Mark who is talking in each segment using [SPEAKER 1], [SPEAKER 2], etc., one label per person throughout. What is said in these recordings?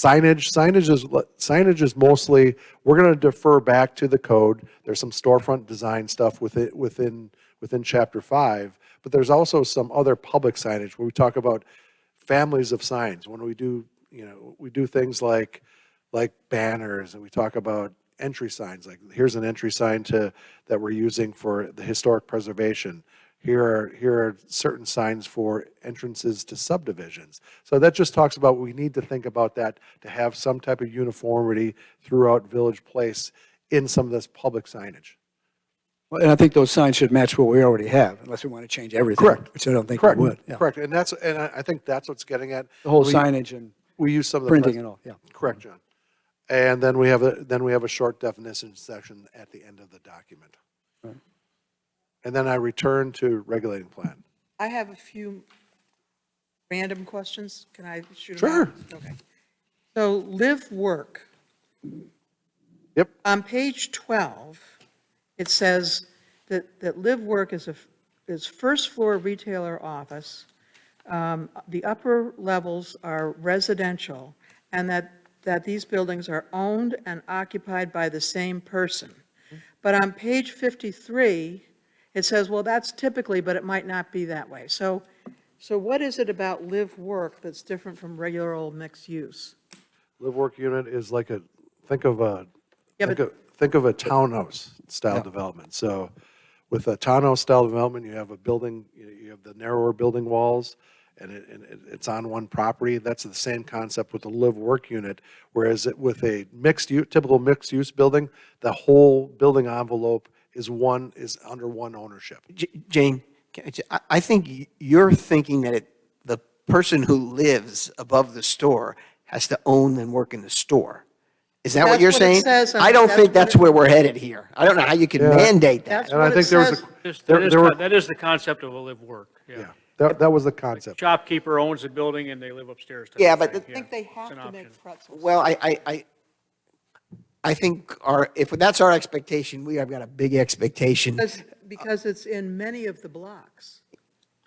[SPEAKER 1] Signage, signage is, signage is mostly, we're gonna defer back to the code. There's some storefront design stuff with it, within, within chapter five. But there's also some other public signage where we talk about families of signs. When we do, you know, we do things like, like banners and we talk about entry signs, like here's an entry sign to, that we're using for the historic preservation. Here are, here are certain signs for entrances to subdivisions. So that just talks about, we need to think about that to have some type of uniformity throughout Village Place in some of this public signage.
[SPEAKER 2] Well, And I think those signs should match what we already have, unless we want to change everything.
[SPEAKER 1] Correct.
[SPEAKER 2] Which I don't think we
[SPEAKER 1] Correct,
[SPEAKER 2] would. yeah.
[SPEAKER 1] correct. And that's, and I, I think that's what's getting at.
[SPEAKER 2] The whole
[SPEAKER 1] We-
[SPEAKER 2] signage and
[SPEAKER 1] We use some of the.
[SPEAKER 2] printing and all, yeah.
[SPEAKER 1] Correct, John. And then we have a, then we have a short definition section at the end of the document. And then I return to regulating plan.
[SPEAKER 3] I have a few random questions. Can I shoot them out? Okay. So live, work.
[SPEAKER 1] Yep,
[SPEAKER 3] On page 12, it says that, that live, work is a, is first floor retailer office. Um, The upper levels are residential and that, that these buildings are owned and occupied by the same person. But on page 53, it says, well, that's typically, but it might not be that way. So, so what is it about live, work that's different from regular old mixed use?
[SPEAKER 1] live work unit is like a, think of a,
[SPEAKER 3] Yeah,
[SPEAKER 1] think
[SPEAKER 3] but-
[SPEAKER 1] of, think of a townhouse style development. So with a townhouse style development, you have a building, you- you have the narrower building walls and it, and it- it's on one property. That's the same concept with the live work unit. Whereas it- with a mixed use, typical mixed use building, the whole building envelope is one, is under one ownership.
[SPEAKER 4] J- Jane, can I j- I- I think y- you're thinking that it- the person who lives above the store has to own and work in the store. Is that what
[SPEAKER 3] That's
[SPEAKER 4] you're
[SPEAKER 3] what it
[SPEAKER 4] saying?
[SPEAKER 3] says, and
[SPEAKER 4] I don't
[SPEAKER 3] that's
[SPEAKER 4] think
[SPEAKER 3] what
[SPEAKER 4] that's
[SPEAKER 3] it-
[SPEAKER 4] where we're headed here. I don't know how you can mandate
[SPEAKER 3] That's
[SPEAKER 4] that.
[SPEAKER 1] And I
[SPEAKER 3] what it
[SPEAKER 1] think there was
[SPEAKER 3] says.
[SPEAKER 1] a,
[SPEAKER 5] This- That
[SPEAKER 1] there,
[SPEAKER 5] is,
[SPEAKER 1] there were,
[SPEAKER 5] con- that is the concept of a live-work, yeah.
[SPEAKER 1] yeah, that, that was the concept.
[SPEAKER 5] Shopkeeper owns the building and they live upstairs. type
[SPEAKER 4] Yeah,
[SPEAKER 5] of
[SPEAKER 4] but
[SPEAKER 5] thing,
[SPEAKER 4] the-
[SPEAKER 3] I think they have
[SPEAKER 5] It's an
[SPEAKER 3] to make
[SPEAKER 5] option.
[SPEAKER 3] pretzels.
[SPEAKER 4] Well, I, I, I, I think our, if that's our expectation, we have got a big expectation.
[SPEAKER 3] Because, because it's in many of the blocks.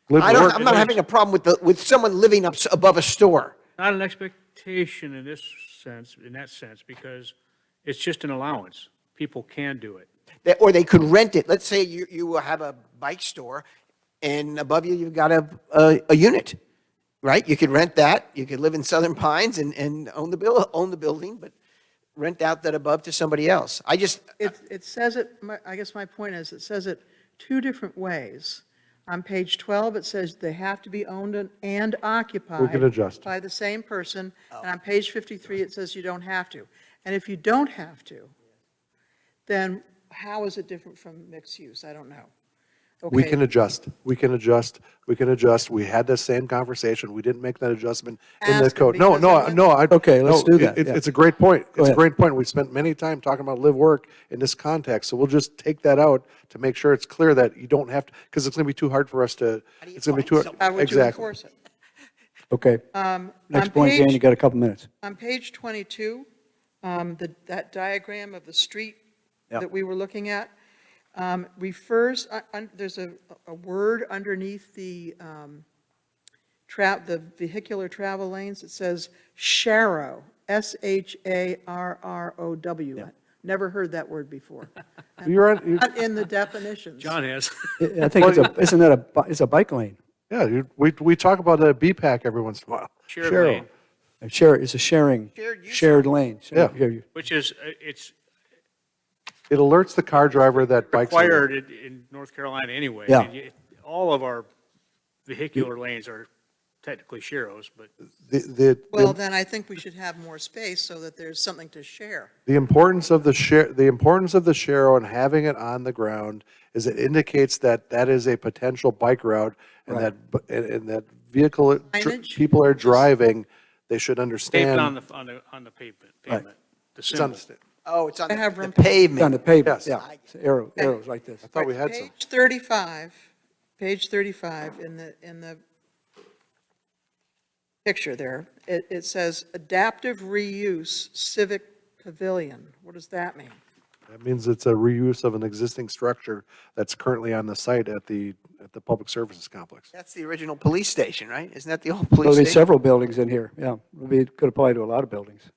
[SPEAKER 1] Live
[SPEAKER 4] I don't,
[SPEAKER 1] work-
[SPEAKER 4] I'm not having a problem with the, with someone living up s- above a store.
[SPEAKER 5] Not an expectation in this sense, in that sense, because it's just an allowance. People can do it.
[SPEAKER 4] that, or they could rent it. Let's say you, you have a bike store and above you, you've got a, a, a unit, right? You could rent that. You could live in Southern Pines and, and own the bill, own the building, but rent out that above to somebody else. I just,
[SPEAKER 3] It, it says it, my- I guess my point is, it says it two different ways. On page 12, it says they have to be owned and- and occupied.
[SPEAKER 1] adjust.
[SPEAKER 3] By the same person, and on page 53, it says you don't have to. And if you don't have to, then how is it different from mixed use? I don't know.
[SPEAKER 1] We
[SPEAKER 3] Okay,
[SPEAKER 1] can adjust, we can adjust, we can adjust. We had the same conversation, we didn't make that adjustment in the
[SPEAKER 3] Ask
[SPEAKER 1] code. No,
[SPEAKER 3] because
[SPEAKER 1] no,
[SPEAKER 3] I'm-
[SPEAKER 1] no, I.
[SPEAKER 2] Okay, let's
[SPEAKER 1] no,
[SPEAKER 2] do that,
[SPEAKER 1] it-
[SPEAKER 2] yeah.
[SPEAKER 1] It's a great point, it's a
[SPEAKER 2] ahead.
[SPEAKER 1] great point. We spent many time talking about live work in this context, so we'll just take that out to make sure it's clear that you don't have to, because it's gonna be too hard for us to, it's gonna be too.
[SPEAKER 3] How would you
[SPEAKER 1] exactly.
[SPEAKER 3] enforce it?
[SPEAKER 2] Okay.
[SPEAKER 3] Um, on
[SPEAKER 2] Next point, Jane,
[SPEAKER 3] page-
[SPEAKER 2] you got a couple minutes.
[SPEAKER 3] On page 22, um, the- that diagram of the street
[SPEAKER 2] Yeah.
[SPEAKER 3] that we were looking at um, refers, un- un- there's a, a word underneath the um, tra, the vehicular travel lanes. It says sharrow, S-H-A-R-R-O-W. Never heard that word before.
[SPEAKER 1] You're on, you-
[SPEAKER 3] Not in the definitions.
[SPEAKER 5] John has.
[SPEAKER 2] I I think it's a, isn't that a, bi- it's a bike lane?
[SPEAKER 1] yeah, you- we, we talk about a BPAC every once in a while.
[SPEAKER 5] Shared
[SPEAKER 1] Cheryl,
[SPEAKER 5] lane.
[SPEAKER 2] A share, it's a sharing, shared lane. So
[SPEAKER 1] Yeah.
[SPEAKER 2] you- you-
[SPEAKER 5] Which is, uh, it's
[SPEAKER 1] It alerts the car driver that bikes. are there.
[SPEAKER 5] required in, in North Carolina anyway.
[SPEAKER 2] Yeah.
[SPEAKER 5] And you- All of our vehicular lanes are technically sheros, but
[SPEAKER 1] The, the. the-
[SPEAKER 3] Well, then I think we should have more space so that there's something to share.
[SPEAKER 1] The importance of the share, the importance of the Shero and having it on the ground is it indicates that that is a potential bike route and that, bu- and, and that vehicle, uh, dr-
[SPEAKER 3] Signage?
[SPEAKER 1] people are driving, they should
[SPEAKER 5] pavement on
[SPEAKER 1] understand.
[SPEAKER 5] the, on the, on the pavement, pavement. The
[SPEAKER 1] It's
[SPEAKER 5] symbol.
[SPEAKER 1] understood.
[SPEAKER 4] oh, it's on
[SPEAKER 3] I have
[SPEAKER 4] the
[SPEAKER 3] room.
[SPEAKER 2] It's on
[SPEAKER 4] pavement.
[SPEAKER 2] the pavement,
[SPEAKER 1] Yes.
[SPEAKER 2] yeah. It's Arrow, arrows like this.
[SPEAKER 1] I thought we had some.
[SPEAKER 3] Page 35, page 35 in the, in the picture there, it, it says adaptive reuse civic pavilion. What does that mean?
[SPEAKER 1] That means it's a reuse of an existing structure that's currently on the site at the, at the Public Services Complex.
[SPEAKER 4] That's the original police station, right? Isn't that the old police
[SPEAKER 2] There'll be
[SPEAKER 4] station?
[SPEAKER 2] several buildings in here, yeah. It'll be- Could apply to a lot of buildings.